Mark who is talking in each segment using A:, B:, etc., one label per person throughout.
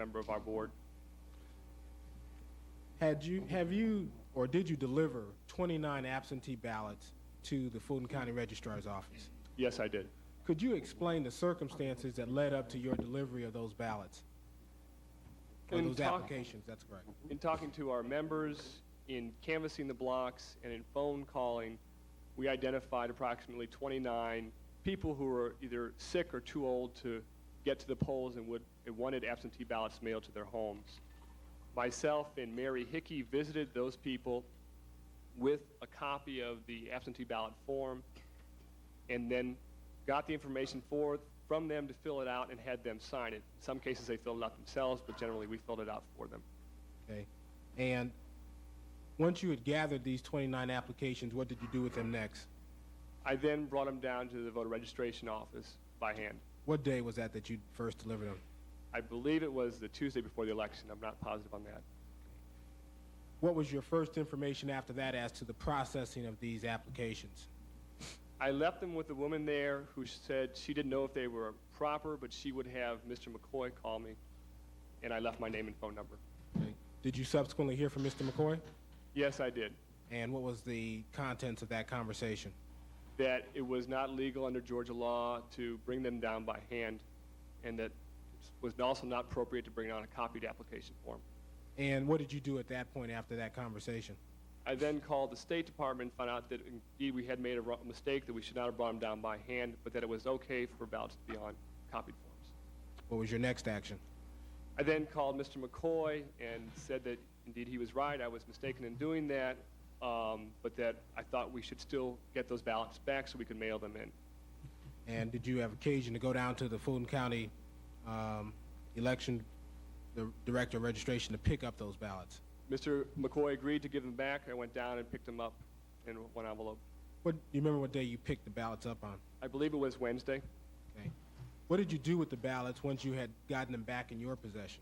A: member of our board.
B: Had you, have you, or did you deliver 29 absentee ballots to the Fulton County Registrar's Office?
A: Yes, I did.
B: Could you explain the circumstances that led up to your delivery of those ballots? Or
A: In
B: those
A: talk-
B: applications, that's correct.
A: In talking to our members, in canvassing the blocks, and in phone calling, we identified approximately 29 people who were either sick or too old to get to the polls and would, and wanted absentee ballots mailed to their homes. Myself and Mary Hickey visited those people with a copy of the absentee ballot form and then got the information for, from them to fill it out and had them sign it. In some cases, they filled it out themselves, but generally, we filled it out for them.
B: Okay. And once you had gathered these 29 applications, what did you do with them next?
A: I then brought them down to the voter registration office by hand.
B: What day was that that you first delivered them?
A: I believe it was the Tuesday before the election. I'm not positive on that.
B: What was your first information after that as to the processing of these applications?
A: I left them with a woman there who said she didn't know if they were proper, but she would have Mr. McCoy call me, and I left my name and phone number.
B: Okay. Did you subsequently hear from Mr. McCoy?
A: Yes, I did.
B: And what was the contents of that conversation?
A: That it was not legal under Georgia law to bring them down by hand, and that it was also not appropriate to bring down a copied application form.
B: And what did you do at that point after that conversation?
A: I then called the State Department, and found out that indeed we had made a wrong mistake, that we should not have brought them down by hand, but that it was okay for ballots to be on copied forms.
B: What was your next action?
A: I then called Mr. McCoy and said that indeed he was right, I was mistaken in doing that, um, but that I thought we should still get those ballots back so we could mail them in.
B: And did you have occasion to go down to the Fulton County um, election the director of registration to pick up those ballots?
A: Mr. McCoy agreed to give them back. I went down and picked them up in one envelope.
B: What do you remember what day you picked the ballots up on?
A: I believe it was Wednesday.
B: Okay. What did you do with the ballots once you had gotten them back in your possession?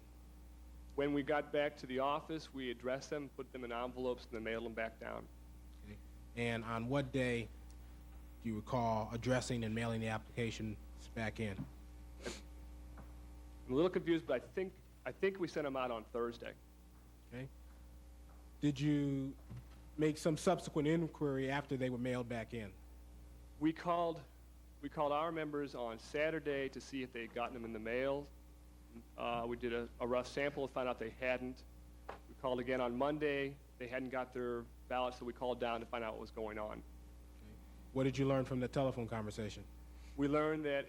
A: When we got back to the office, we addressed them, put them in envelopes, and then mailed them back down.
B: Okay. And on what day do you recall addressing and mailing the applications back in?
A: I'm a little confused, but I think, I think we sent them out on Thursday.
B: Okay. Did you make some subsequent inquiry after they were mailed back in?
A: We called, we called our members on Saturday to see if they had gotten them in the mail. Uh, we did a, a rough sample, and found out they hadn't. We called again on Monday. They hadn't got their ballots, so we called down to find out what was going on.
B: What did you learn from the telephone conversation?
A: We learned that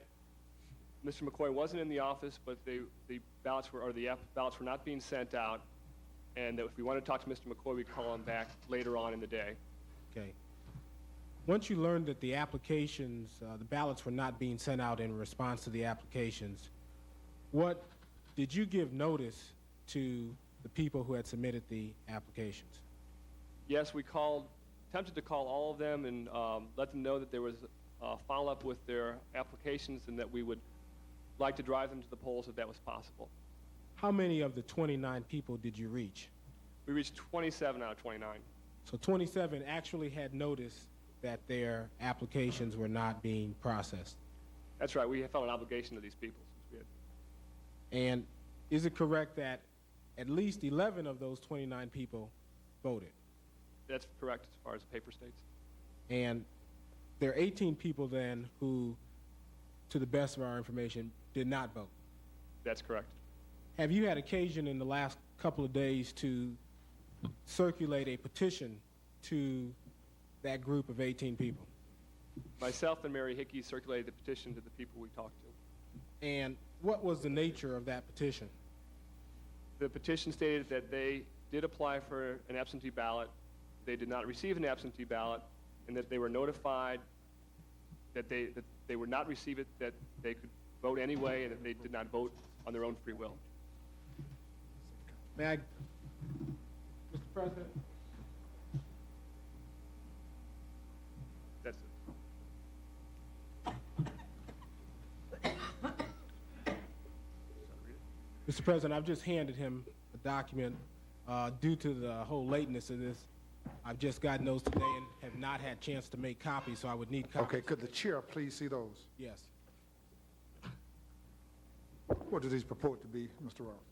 A: Mr. McCoy wasn't in the office, but they, the ballots were, or the app- ballots were not being sent out, and that if we wanted to talk to Mr. McCoy, we'd call him back later on in the day.
B: Okay. Once you learned that the applications, uh, the ballots were not being sent out in response to the applications, what did you give notice to the people who had submitted the applications?
A: Yes, we called, attempted to call all of them and um, let them know that there was a follow-up with their applications and that we would like to drive them to the polls if that was possible.
B: How many of the 29 people did you reach?
A: We reached 27 out of 29.
B: So 27 actually had notice that their applications were not being processed.
A: That's right, we felt an obligation to these people since we had
B: And is it correct that at least 11 of those 29 people voted?
A: That's correct as far as the paper states.
B: And there are 18 people then who, to the best of our information, did not vote.
A: That's correct.
B: Have you had occasion in the last couple of days to circulate a petition to that group of 18 people?
A: Myself and Mary Hickey circulated the petition to the people we talked to.
B: And what was the nature of that petition?
A: The petition stated that they did apply for an absentee ballot, they did not receive an absentee ballot, and that they were notified that they, that they would not receive it, that they could vote anyway, and that they did not vote on their own free will.
B: May I, Mr. President?
A: That's it.
B: Mr. President, I've just handed him a document. Uh, due to the whole lateness of this, I've just gotten those today and have not had chance to make copies, so I would need copies.
C: Okay, could the chair please see those?
B: Yes.
C: What do these purport to be, Mr. Roth?